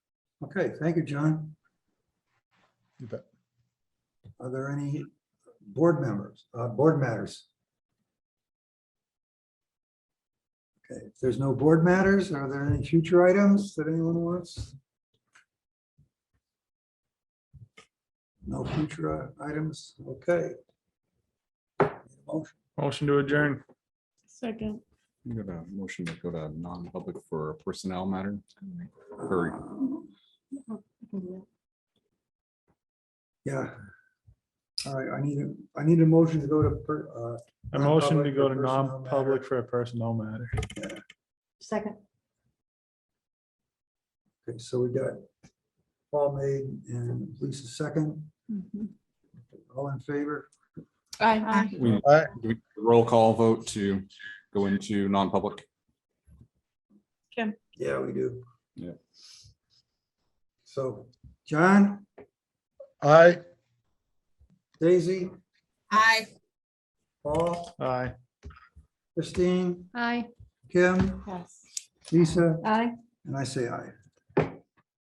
Okay, thank you, John. You bet. Are there any board members, uh, board matters? Okay, if there's no board matters, are there any future items that anyone wants? No future uh, items, okay. Motion. Motion to adjourn. Second. I'm gonna motion to go to non-public for a personnel matter. Or Yeah. All right, I need a, I need a motion to go to, per- uh, A motion Non-public to go for to personnel non-public for a personnel matter. Second. okay, so we got Paul made and Lisa second, all in favor? Aye. we, Aye. do we- roll call vote to go into non-public. Yeah, we do. Yeah. So, John, Aye. Daisy, Aye. Paul, Aye. Christine, Aye. Kim, Yes. Lisa, Aye. and I say aye.